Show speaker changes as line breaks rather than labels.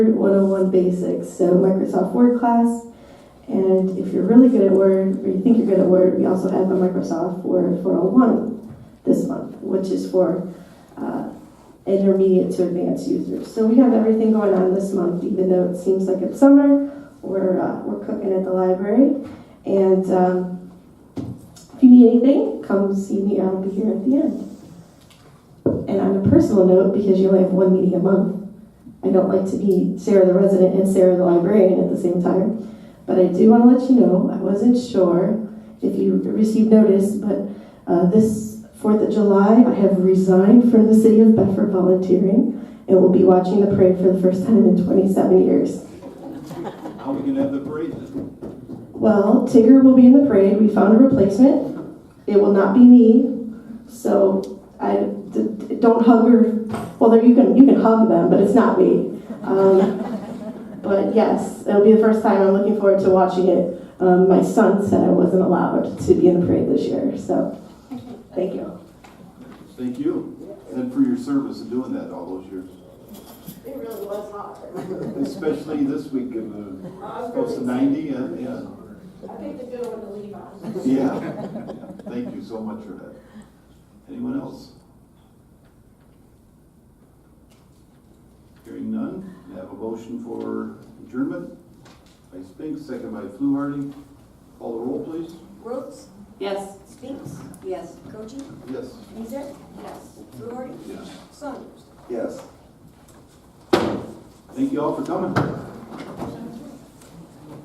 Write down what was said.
101 basics, so Microsoft Word class. And if you're really good at Word, or you think you're good at Word, we also have a Microsoft Word 401 this month, which is for uh, intermediate to advanced users. So we have everything going on this month, even though it seems like it's summer. We're, uh, we're cooking at the library. And um, if you need anything, come see me. I'll be here at the end. And on a personal note, because you only have one meeting a month, I don't like to be Sarah the resident and Sarah the librarian at the same time, but I do want to let you know I wasn't sure if you received notice, but uh, this 4th of July I have resigned from the City of Bedford volunteering and will be watching the parade for the first time in 27 years.
How are we gonna have the parade then?
Well, Tigger will be in the parade. We found a replacement. It will not be me, so I d- d- don't hug her. Well, there you can you can hug them, but it's not me. Um, but yes, it'll be the first time. I'm looking forward to watching it. Um, my son said I wasn't allowed to be in the parade this year, so thank you.
Thank you, and for your service in doing that all those years.
It really was hot.
Especially this week of, uh,
I was
close to
really,
ninety, uh, yeah,
I picked a good one to leave on.
yeah. Yeah. Thank you so much for that. Anyone else? Hearing none, I have a motion for adjournment by Spinks, second by Fluharty. Call the roll, please.
Rhodes?
Yes.
Spinks? Yes. Cochi?
Yes.
Mizek? Yes. Fluharty?
Yes.
Saunders?
Yes. Thank you all for coming.